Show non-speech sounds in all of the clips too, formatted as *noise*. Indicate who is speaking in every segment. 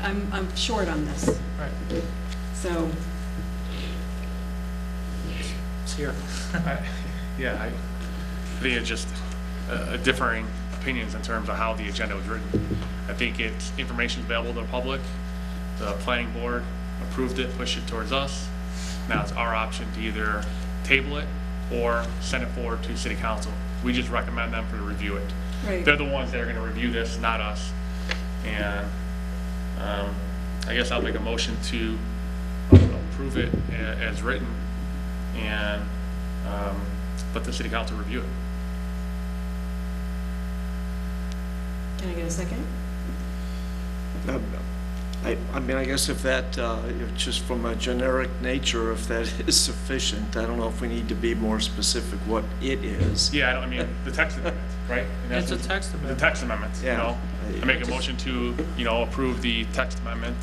Speaker 1: I'm, I'm short on this,
Speaker 2: All right,
Speaker 1: so,
Speaker 2: it's here.
Speaker 3: I- Yeah, I think it's just uh, differing opinions in terms of how the agenda was written. I think it's information available to the public. The planning board approved it, pushed it towards us. Now it's our option to either table it or send it forward to city council. We just recommend them for to review it.
Speaker 1: Right.
Speaker 3: They're the ones that are going to review this, not us. And um, I guess I'll make a motion to approve it a- as written and um, let the city council review it.
Speaker 1: can I get a second?
Speaker 4: Um, I, I mean, I guess if that, uh, if just from a generic nature, if that *laughs* is sufficient, I don't know if we need to be more specific what it is.
Speaker 3: Yeah, I don't, I mean, the text amendment, right? In
Speaker 2: It's a
Speaker 3: essence,
Speaker 2: text
Speaker 3: The
Speaker 2: amendment.
Speaker 3: text amendment, you
Speaker 4: Yeah.
Speaker 3: know? I make a motion to, you know, approve the text amendment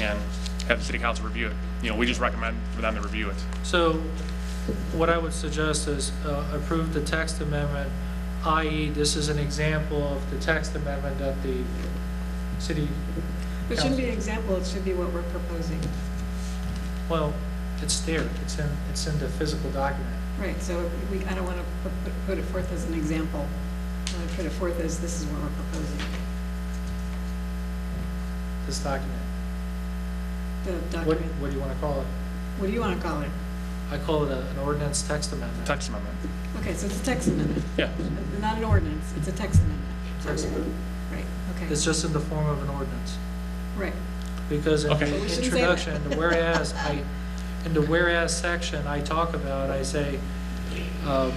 Speaker 3: and have the city council review it. You know, we just recommend for them to review it.
Speaker 2: So what I would suggest is uh, approve the text amendment, i.e. this is an example of the text amendment that the city,
Speaker 1: It shouldn't be an example, it should be what we're proposing.
Speaker 2: well, it's there, it's in, it's in the physical document.
Speaker 1: Right, so we, I don't want to put it forth as an example. I want to put it forth as this is what we're proposing,
Speaker 2: this document.
Speaker 1: the
Speaker 2: What,
Speaker 1: document.
Speaker 2: what do you want to call it?
Speaker 1: What do you want to call it?
Speaker 2: I call it a- an ordinance text amendment.
Speaker 3: Text amendment,
Speaker 1: Okay, so it's a text amendment, Uh,
Speaker 3: yeah.
Speaker 1: not an ordinance, it's a text amendment.
Speaker 2: Text amendment.
Speaker 1: Right, okay,
Speaker 2: It's just in the form of an ordinance.
Speaker 1: right,
Speaker 2: Because in
Speaker 3: Okay. But
Speaker 2: the
Speaker 1: we shouldn't say that.
Speaker 2: introduction, the whereas, I, in the whereas section, I talk about, I say, um,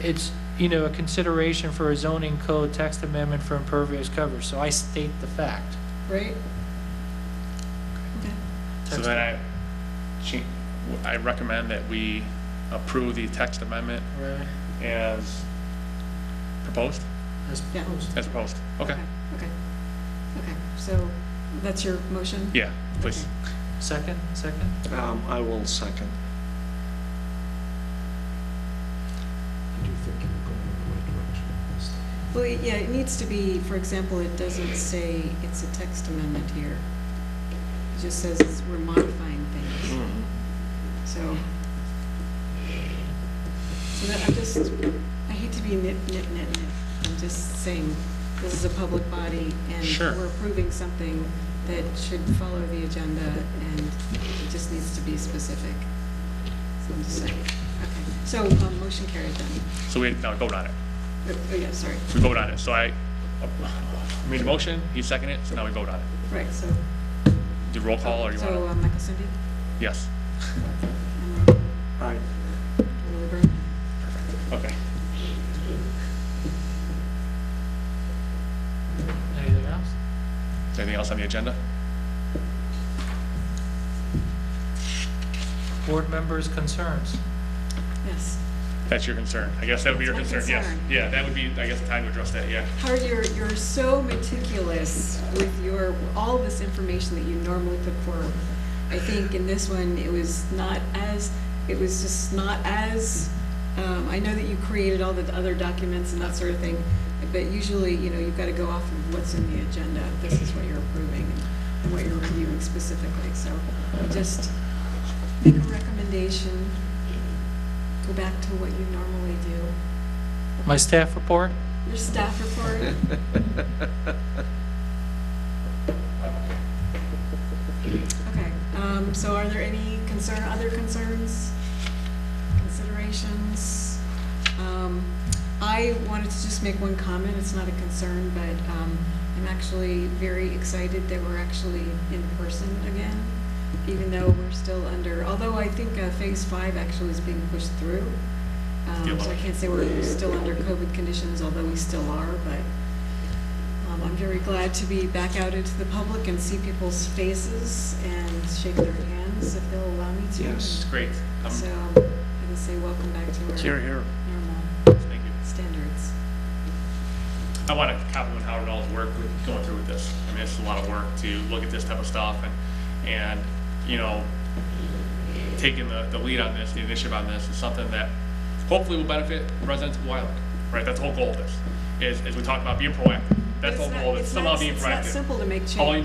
Speaker 2: it's, you know, a consideration for a zoning code text amendment for impervious coverage, so I state the fact.
Speaker 1: right? Okay.
Speaker 3: So
Speaker 2: Text-
Speaker 3: then I, cha- I recommend that we approve the text amendment
Speaker 2: Right,
Speaker 3: as proposed,
Speaker 2: as
Speaker 1: Yeah.
Speaker 2: proposed.
Speaker 3: as proposed. Okay,
Speaker 1: Okay, okay, so that's your motion?
Speaker 3: yeah, please.
Speaker 2: Second, second?
Speaker 4: Um, I will second.
Speaker 5: I do think you're going in the right direction with this.
Speaker 1: Well, yeah, it needs to be, for example, it doesn't say it's a text amendment here. It just says it's- we're modifying
Speaker 4: Hmm.
Speaker 1: things,
Speaker 4: Mm-hmm.
Speaker 1: so. So that, I'm just, I hate to be nit, nit, nit, nit. I'm just saying, this is a public body, and
Speaker 3: Sure.
Speaker 1: we're approving something that should follow the agenda, and it just needs to be specific. So I'm just saying, okay. So, um, motion carried then.
Speaker 3: So we, no, vote on it.
Speaker 1: Oh, oh, yeah, sorry.
Speaker 3: We vote on it, so I I made a motion, he seconded it, so now we vote on it.
Speaker 1: Right, so,
Speaker 3: Do roll call, or you
Speaker 1: so
Speaker 3: want
Speaker 1: uh, Michael Cindy?
Speaker 3: to? Yes,
Speaker 1: and Rob,
Speaker 4: Aye.
Speaker 1: Lily Byrne.
Speaker 3: okay.
Speaker 2: Anything else?
Speaker 3: Anything else on the agenda?
Speaker 2: Board members' concerns?
Speaker 1: Yes.
Speaker 3: That's your concern. I guess that would be your
Speaker 1: That's my
Speaker 3: concern, yes.
Speaker 1: concern.
Speaker 3: Yeah, that would be, I guess, the time to address that, yeah.
Speaker 1: Howard, you're, you're so meticulous with your, all this information that you normally put forward. I think in this one, it was not as, it was just not as, um, I know that you created all the other documents and that sort of thing, but usually, you know, you've got to go off of what's in the agenda. This is what you're approving and what you're reviewing specifically, so just make a recommendation. Go back to what you normally do.
Speaker 2: My staff report?
Speaker 1: Your staff report, Okay, um, so are there any concern, other concerns, considerations? Um, I wanted to just make one comment, it's not a concern, but, um, I'm actually very excited that we're actually in person again, even though we're still under, although I think, uh, phase five actually is being pushed through. Um, so I can't say we're still under COVID conditions, although we still are, but, um, I'm very glad to be back out into the public and see people's faces and shake their hands if they'll allow me to.
Speaker 4: Yes.
Speaker 3: Great. Um,
Speaker 1: So I can say welcome back to
Speaker 4: Here,
Speaker 1: our
Speaker 4: here.
Speaker 1: normal
Speaker 3: Thank you.
Speaker 1: standards.
Speaker 3: I want to compliment Howard all his work with going through with this. I mean, it's a lot of work to look at this type of stuff and, and, you know, taking the, the lead on this, the initiative on this is something that hopefully will benefit residents of Wyland, right? That's the whole goal of this, is, is we talk about being proactive. That's
Speaker 1: It's
Speaker 3: the whole
Speaker 1: not-
Speaker 3: goal, of it,
Speaker 1: it's
Speaker 3: somehow
Speaker 1: not-
Speaker 3: being
Speaker 1: It's not
Speaker 3: proactive.
Speaker 1: simple to make
Speaker 3: All you
Speaker 1: changes.